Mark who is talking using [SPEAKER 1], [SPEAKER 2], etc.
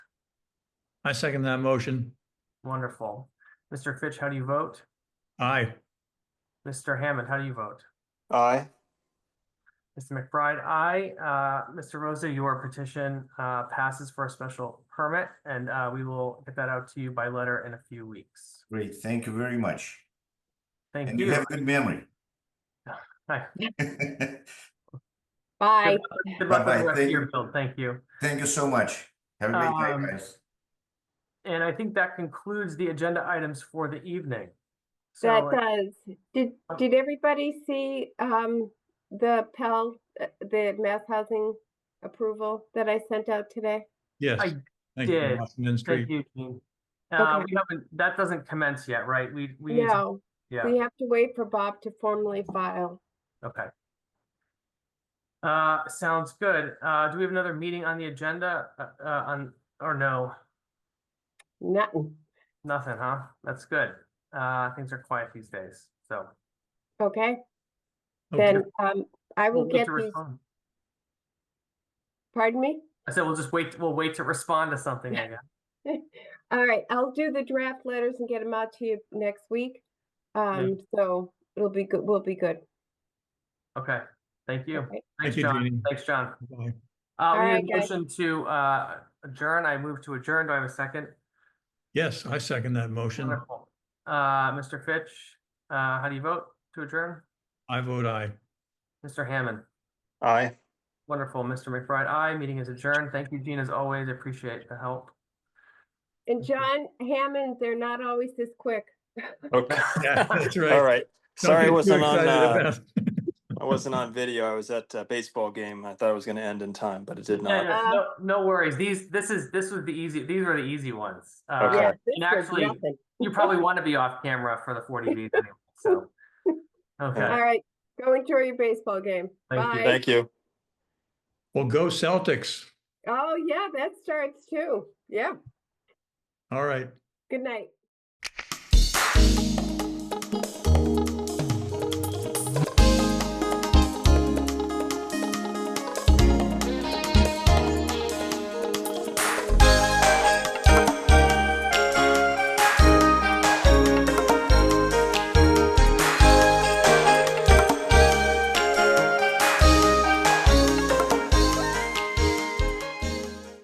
[SPEAKER 1] I second that motion.
[SPEAKER 2] Wonderful. Mr. Fitch, how do you vote?
[SPEAKER 1] Aye.
[SPEAKER 2] Mr. Hammond, how do you vote?
[SPEAKER 3] Aye.
[SPEAKER 2] Mr. McBride, aye. Uh, Mr. Rosa, your petition uh, passes for a special permit, and uh, we will get that out to you by letter in a few weeks.
[SPEAKER 4] Great, thank you very much.
[SPEAKER 2] Thank
[SPEAKER 4] And you
[SPEAKER 2] you.
[SPEAKER 4] have good memory.
[SPEAKER 2] Hi.
[SPEAKER 5] Bye.
[SPEAKER 2] Good luck with
[SPEAKER 4] Bye-bye.
[SPEAKER 2] the rest of
[SPEAKER 4] Thank
[SPEAKER 2] your
[SPEAKER 4] you.
[SPEAKER 2] build. Thank you.
[SPEAKER 4] Thank you so much. Have a great
[SPEAKER 2] Um,
[SPEAKER 4] day, guys.
[SPEAKER 2] And I think that concludes the agenda items for the evening.
[SPEAKER 5] That
[SPEAKER 2] So
[SPEAKER 5] does. Did,
[SPEAKER 2] Oh.
[SPEAKER 5] did everybody see um the Pell, uh, the mass housing approval that I sent out today?
[SPEAKER 1] Yes.
[SPEAKER 2] I
[SPEAKER 1] Thank you,
[SPEAKER 2] did.
[SPEAKER 1] Washington Street.
[SPEAKER 2] thank you, Jean. Uh,
[SPEAKER 5] Okay.
[SPEAKER 2] we haven't, that doesn't commence yet, right? We, we need, to-
[SPEAKER 5] No,
[SPEAKER 2] yeah,
[SPEAKER 5] we have to wait for Bob to formally file.
[SPEAKER 2] okay. Uh, sounds good. Uh, do we have another meeting on the agenda, uh, uh, on, or no? Oh.
[SPEAKER 5] Nothing.
[SPEAKER 2] Nothing, huh? That's good. Uh, things are quiet these days, so.
[SPEAKER 5] Okay,
[SPEAKER 1] Okay.
[SPEAKER 5] then um I
[SPEAKER 2] Oh,
[SPEAKER 5] will
[SPEAKER 2] we'll wait
[SPEAKER 5] get
[SPEAKER 2] to
[SPEAKER 5] these,
[SPEAKER 2] respond.
[SPEAKER 5] pardon me?
[SPEAKER 2] I said, we'll just wait, we'll wait to respond to something, I guess.
[SPEAKER 5] All right, I'll do the draft letters and get them out to you next week. Um, so it'll be good, we'll be good.
[SPEAKER 2] Okay, thank you.
[SPEAKER 5] Okay.
[SPEAKER 1] Thank
[SPEAKER 2] Thanks,
[SPEAKER 1] you,
[SPEAKER 2] John.
[SPEAKER 1] Jeannie.
[SPEAKER 2] Thanks, John.
[SPEAKER 1] Bye.
[SPEAKER 2] Uh, we
[SPEAKER 5] right,
[SPEAKER 2] need a
[SPEAKER 5] guys.
[SPEAKER 2] motion to, uh, adjourn. I move to adjourn. Do I have a second?
[SPEAKER 1] Yes, I second that motion.
[SPEAKER 2] Wonderful. Uh, Mr. Fitch, uh, how do you vote to adjourn?
[SPEAKER 1] I vote aye.
[SPEAKER 2] Mr. Hammond,
[SPEAKER 3] Aye.
[SPEAKER 2] wonderful. Mr. McBride, aye. Meeting is adjourned. Thank you, Gene, as always. Appreciate the help.
[SPEAKER 5] And
[SPEAKER 2] Okay.
[SPEAKER 5] John Hammond, they're not always this quick.
[SPEAKER 3] Okay,
[SPEAKER 1] Yeah, that's right.
[SPEAKER 3] all right.
[SPEAKER 1] Don't
[SPEAKER 3] Sorry I
[SPEAKER 1] get too
[SPEAKER 3] wasn't on,
[SPEAKER 1] excited
[SPEAKER 3] uh,
[SPEAKER 1] about-
[SPEAKER 3] I wasn't on video. I was at a baseball game. I thought it was gonna end in time, but it did
[SPEAKER 2] Yeah,
[SPEAKER 3] not.
[SPEAKER 2] yeah, no, no worries. These, this is, this was the easy, these were the easy ones. Uh,
[SPEAKER 3] Okay.
[SPEAKER 5] Yeah, this was
[SPEAKER 2] actually,
[SPEAKER 5] nothing.
[SPEAKER 2] You probably want to be off camera for the forty Bs anyway, so.
[SPEAKER 5] All
[SPEAKER 2] Okay,
[SPEAKER 5] right, go enjoy your baseball game.
[SPEAKER 2] Thank you.
[SPEAKER 5] Bye.
[SPEAKER 3] Thank you.
[SPEAKER 1] Well, go Celtics.
[SPEAKER 5] Oh, yeah, that starts too. Yeah,
[SPEAKER 1] All right.
[SPEAKER 5] good night.